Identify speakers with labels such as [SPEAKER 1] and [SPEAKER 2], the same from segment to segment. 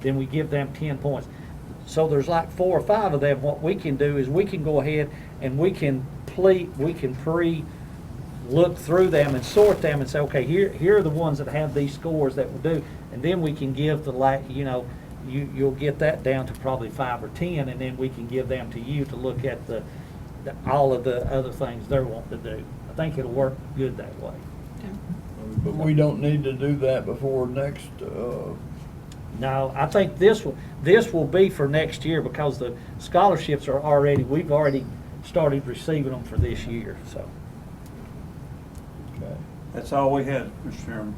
[SPEAKER 1] then we give them ten points. So there's like four or five of them. What we can do is we can go ahead and we can ple, we can pre, look through them and sort them and say, okay, here, here are the ones that have these scores that will do. And then we can give the la, you know, you, you'll get that down to probably five or ten, and then we can give them to you to look at the, the, all of the other things they're wanting to do. I think it'll work good that way.
[SPEAKER 2] But we don't need to do that before next, uh,
[SPEAKER 1] No, I think this will, this will be for next year because the scholarships are already, we've already started receiving them for this year, so.
[SPEAKER 2] okay.
[SPEAKER 3] That's all we had, Mr. Chairman.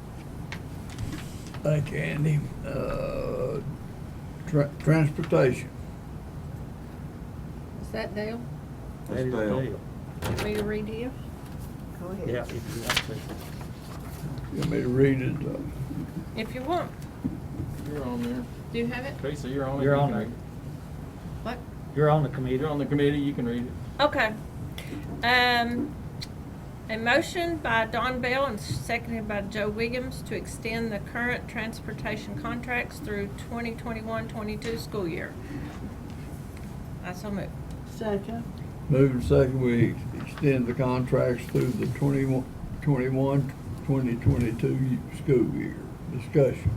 [SPEAKER 2] Thank you, Andy. Uh, tra- transportation.
[SPEAKER 4] Is that Dale?
[SPEAKER 3] That's
[SPEAKER 1] that is the
[SPEAKER 3] Dale.
[SPEAKER 1] deal.
[SPEAKER 4] Want me to read you? Go ahead.
[SPEAKER 1] Yeah, if you want to.
[SPEAKER 2] You want me to read it? Uh,
[SPEAKER 4] If you want.
[SPEAKER 5] You're on there.
[SPEAKER 4] Do you have it?
[SPEAKER 5] Okay, so you're on it.
[SPEAKER 1] You're
[SPEAKER 5] you
[SPEAKER 1] on
[SPEAKER 5] can
[SPEAKER 1] it.
[SPEAKER 5] read
[SPEAKER 4] What?
[SPEAKER 1] You're on the
[SPEAKER 5] it.
[SPEAKER 1] committee.
[SPEAKER 5] You're on the committee, you can read it.
[SPEAKER 4] Okay. Um, a motion by Don Bell and seconded by Joe Williams to extend the current transportation contracts through 2021-22 school year. I so move.
[SPEAKER 6] Second.
[SPEAKER 2] Moving second, we extend the contracts through the 21 21, 2022 school year. Discussion.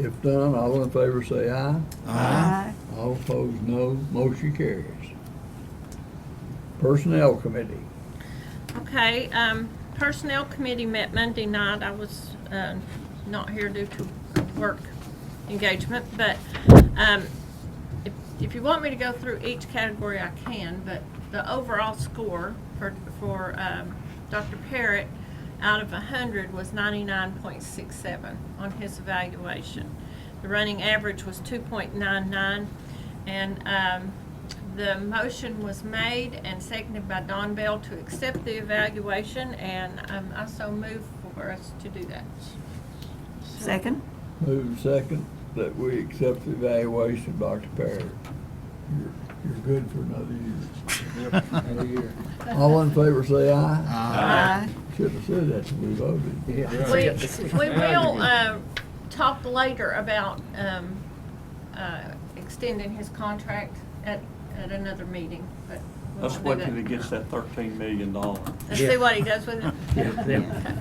[SPEAKER 2] If done, all in favor say aye.
[SPEAKER 6] Aye.
[SPEAKER 2] All opposed, no. Motion carries. Personnel committee.
[SPEAKER 4] Okay, um, Personnel Committee met Monday night. I was, um, not here due to work engagement, but, um, if, if you want me to go through each category, I can, but the overall score for, for, um, Dr. Parrott out of a hundred was ninety-nine point six seven on his evaluation. The running average was two point nine nine, and, um, the motion was made and seconded by Don Bell to accept the evaluation, and um, I so move for us to do that.
[SPEAKER 6] Second.
[SPEAKER 2] Move second that we accept the evaluation, Dr. Parrott. You're, you're good for another year. Another year. All in favor say aye.
[SPEAKER 6] Aye.
[SPEAKER 2] Should have said that when we voted.
[SPEAKER 4] We, we will uh, talk later about um, uh, extending his contract at, at another meeting, but we
[SPEAKER 3] Let's
[SPEAKER 4] won't
[SPEAKER 3] wait
[SPEAKER 4] do
[SPEAKER 3] till he
[SPEAKER 4] that.
[SPEAKER 3] gets that thirteen million dollar.
[SPEAKER 4] Let's see what he does with it.
[SPEAKER 1] Yeah, yeah.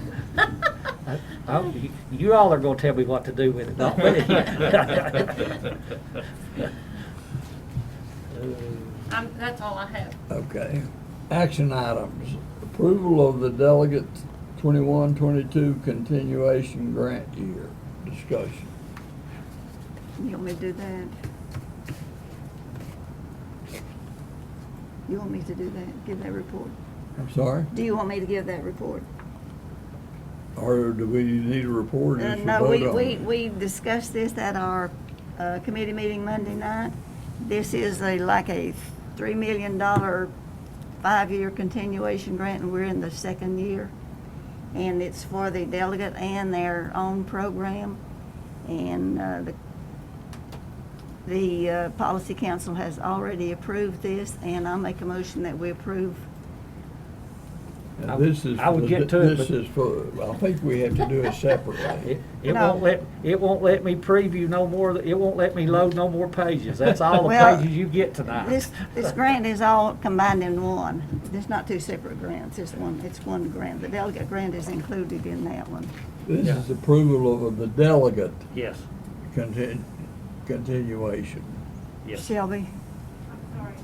[SPEAKER 1] I- I- you- Uh, oh, You all are gonna tell me what to do with it, don't we?
[SPEAKER 4] Um, That's all I have.
[SPEAKER 2] Okay. Action items. Approval of the delegate twenty-one, twenty-two continuation grant year. Discussion.
[SPEAKER 6] You want me to do that? You want me to do that, give that report?
[SPEAKER 2] I'm sorry?
[SPEAKER 6] Do you want me to give that report?
[SPEAKER 2] Or do we need a report? or
[SPEAKER 6] Uh,
[SPEAKER 2] just a
[SPEAKER 6] No,
[SPEAKER 2] vote
[SPEAKER 6] we,
[SPEAKER 2] on
[SPEAKER 6] we,
[SPEAKER 2] it?
[SPEAKER 6] we discussed this at our uh, committee meeting Monday night. This is a, like a $3 million five-year continuation grant, and we're in the second year. And it's for the delegate and their own program. And uh, the, the uh, policy council has already approved this, and I'll make a motion that we approve.
[SPEAKER 2] And This is.
[SPEAKER 1] I would
[SPEAKER 2] for-
[SPEAKER 1] get to it,
[SPEAKER 2] This
[SPEAKER 1] but-
[SPEAKER 2] is for, I think we have to do it separately.
[SPEAKER 1] It it
[SPEAKER 6] No.
[SPEAKER 1] won't let, it won't let me preview no more, it won't let me load no more pages. That's all the
[SPEAKER 6] Well,
[SPEAKER 1] pages you get tonight.
[SPEAKER 6] This, this grant is all combined in one. There's not two separate grants, it's one, it's one grant. The delegate grant is included in that one.
[SPEAKER 2] This
[SPEAKER 1] Yeah.
[SPEAKER 2] is approval of the delegate
[SPEAKER 1] Yes,
[SPEAKER 2] contin- continuation.
[SPEAKER 1] yes.
[SPEAKER 6] Shelby?
[SPEAKER 7] I'm sorry.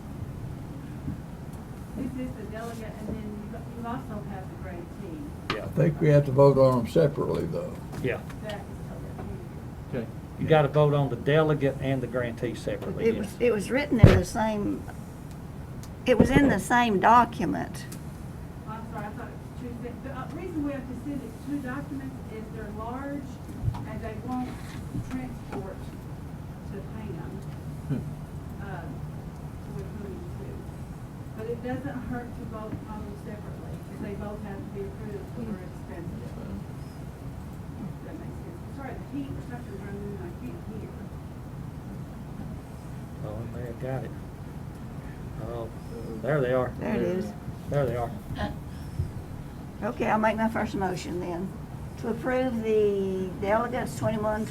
[SPEAKER 7] This is the delegate, and then you also have the grade team.
[SPEAKER 1] Yeah.
[SPEAKER 2] I think we have to vote on them separately, though.
[SPEAKER 1] Yeah,
[SPEAKER 7] That is totally.
[SPEAKER 5] Okay.
[SPEAKER 1] you gotta vote on the delegate and the grantee separately,
[SPEAKER 6] It was,
[SPEAKER 1] yes.
[SPEAKER 6] it was written in the same, it was in the same document.
[SPEAKER 7] I'm sorry, I thought it was two, things. the uh, reason we have to send it two documents is they're large and they won't transport to Hingham. Uh, So we put them two. But it doesn't hurt to vote on them separately, because they both have to be approved or expensive. If that makes sense. Sorry, the heat or something's running, I can't hear.
[SPEAKER 1] Oh, they have got it. Oh, there they are.
[SPEAKER 6] There it is.
[SPEAKER 1] There they are.
[SPEAKER 6] Okay, I'll make my first motion then. To approve the delegates 21,